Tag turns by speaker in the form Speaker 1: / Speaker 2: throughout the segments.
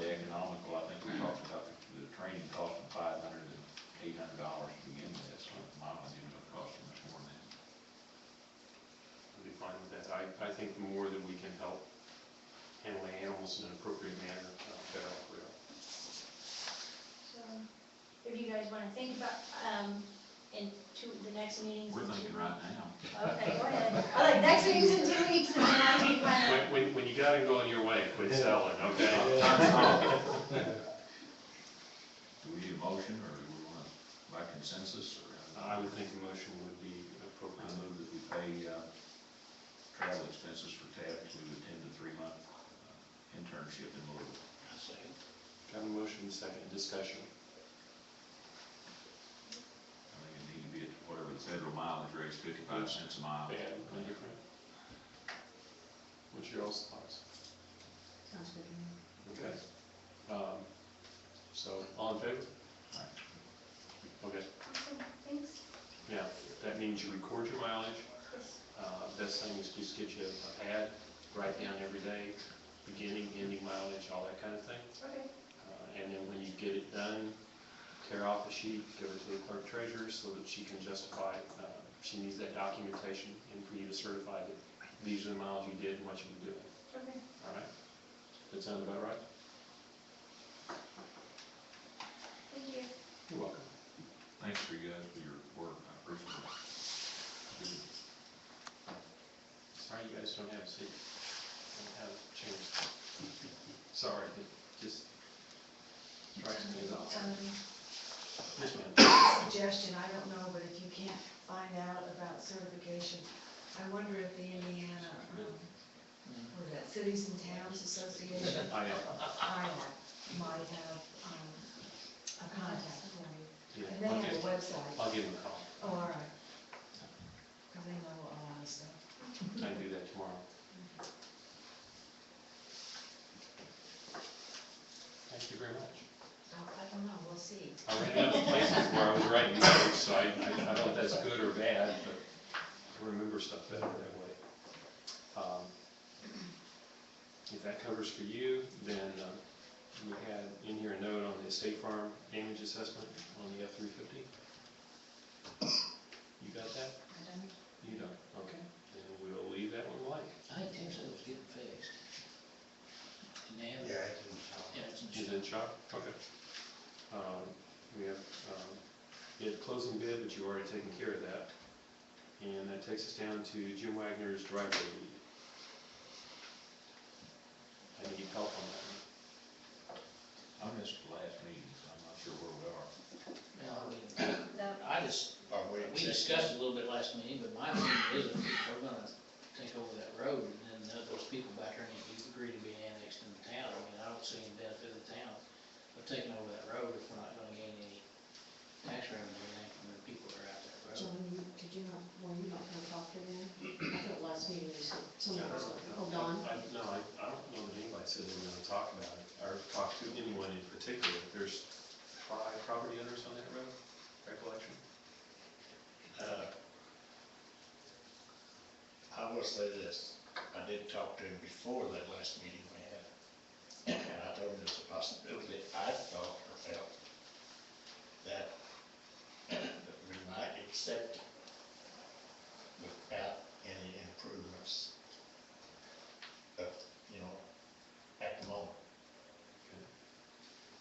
Speaker 1: astronomical, I think we talked about the training costing five hundred and eight hundred dollars to begin with, so mileage ended up costing us more than.
Speaker 2: I'd be fine with that. I, I think the more that we can help handle animals in an appropriate manner, uh, better off we are.
Speaker 3: So, if you guys wanna think about, um, in two, the next meeting's
Speaker 1: We're
Speaker 3: in
Speaker 1: thinking
Speaker 3: two.
Speaker 1: right now.
Speaker 3: Okay, go ahead. I like, next meeting's in two weeks, and then I can plan
Speaker 2: When, when, when you got it going your way, quit selling,
Speaker 1: Do
Speaker 2: okay?
Speaker 1: we need a motion, or do we want, by consensus, or?
Speaker 2: I would think a motion would be appropriate.
Speaker 1: I move that we pay, uh, travel expenses for Tab to attend the three-month uh, internship in Louisville.
Speaker 2: Got a motion, second, discussion.
Speaker 1: I think it need to be at whatever the federal mileage rate, is, fifty-five cents a mile.
Speaker 2: Yeah, no different. What's your all's thoughts?
Speaker 4: Sounds good to me.
Speaker 2: Okay. Um, So, all in favor?
Speaker 1: Aye.
Speaker 2: Okay,
Speaker 3: Awesome, Thanks.
Speaker 2: yeah, that means you record your mileage.
Speaker 3: Yes.
Speaker 2: Uh, Best thing is just get you a pad, write down every day, beginning, ending mileage, all that kind of thing.
Speaker 3: Okay,
Speaker 2: Uh, And then when you get it done, tear off a sheet, give it to the clerk treasurer so that she can justify, uh, she needs that documentation and for you to certify that these are the miles you did and what you were doing,
Speaker 3: okay.
Speaker 2: all right? That sound about right?
Speaker 3: Thank you.
Speaker 2: You're welcome.
Speaker 1: Thanks for you guys for your work, I appreciate it.
Speaker 2: Sorry you guys don't have a seat, don't have a chair. Sorry, it just strikes me as odd.
Speaker 4: Um,
Speaker 2: Yes, ma'am.
Speaker 4: Suggestion, I don't know, but if you can't find out about certification, I wonder if the Indiana, um, what is that, Cities and Towns Association,
Speaker 2: I, uh,
Speaker 4: I might have, um, a contact for you.
Speaker 2: yeah,
Speaker 4: And they
Speaker 2: I'll
Speaker 4: have a
Speaker 2: give-
Speaker 4: website,
Speaker 2: I'll give him a call.
Speaker 4: oh, all right. Because they know a lot of stuff.
Speaker 2: I can do that tomorrow. Thank you very much.
Speaker 4: I- I don't know, we'll see.
Speaker 2: I ran out of places where I was writing notes, so I, I I don't know if that's good or bad, but I remember stuff better that way. Um, If that covers for you, then um, we had in here a note on the State Farm damage assessment on the F-350. You got that?
Speaker 4: I don't,
Speaker 2: You don't, okay. Then we'll leave that one blank.
Speaker 5: I think Tim said it was getting fixed. And they have,
Speaker 6: Yeah, I can tell.
Speaker 5: yeah, it's in
Speaker 2: Is
Speaker 5: the
Speaker 2: in shop? Okay. Um, We have, um, you had closing bid, but you already taken care of that. And that takes us down to Jim Wagner's driveway lead. I need help on that.
Speaker 1: I missed the last meeting, so I'm not sure where we are.
Speaker 5: shop.
Speaker 3: No,
Speaker 5: I just,
Speaker 6: Are we
Speaker 5: we discussed it a little bit last meeting, but my opinion is that we're gonna take over that road and then let those people back there, and if you agree to be annexed in the town, I mean, I don't see any benefit of the town of taking over that road if we're not gonna gain any tax revenue or anything from the people that are out that road.
Speaker 4: John, you, did you not, were you not gonna talk to them? I thought last meeting, you said, someone was, oh, Don?
Speaker 2: I- No, I, I don't know that anybody said they were gonna talk about it, or talk to anyone in particular. There's five property owners on that road, recollection?
Speaker 6: Uh, I will say this, I did talk to him before that last meeting we had, and I told him there's a possibility, I thought or felt that that we might accept it without any improvements of, you know, at the moment.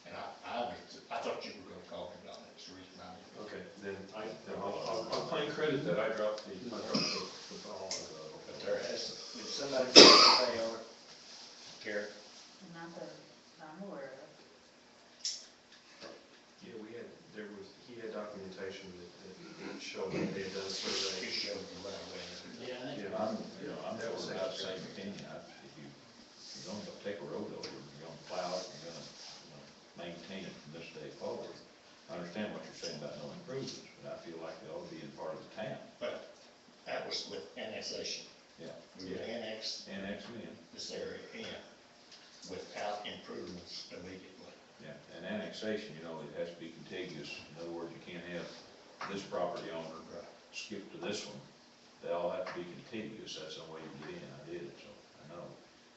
Speaker 6: And I, I, was- I thought you were gonna call me about that, that's the reason I didn't.
Speaker 2: Okay, then I, then I'll, I'll- I'll claim credit that I dropped the, I dropped the, the ball on the road.
Speaker 6: But there has, if somebody's got to pay on it, Garrett,
Speaker 4: Not that I'm aware of.
Speaker 2: Yeah, we had, there was, he had documentation that, that showed that they had done a
Speaker 6: he
Speaker 2: survey.
Speaker 6: showed the right way.
Speaker 5: Yeah, I think,
Speaker 2: Yeah,
Speaker 1: I'm, you know, I'm never about the same opinion, I, if you, if you're gonna take a road over, you're gonna plow it, you're gonna, you know, maintain it from this day forward. I understand what you're saying about no improvements, but I feel like they ought to be in part of the town,
Speaker 6: But that was with annexation.
Speaker 1: Yeah.
Speaker 6: We would annex
Speaker 1: annex it in,
Speaker 6: this area in without improvements immediately.
Speaker 1: yeah, and annexation, you know, it has to be contiguous, in other words, you can't have this property owner
Speaker 6: Right.
Speaker 1: skip to this one, they all have to be contiguous, that's the way you get in, I did it, so, I know.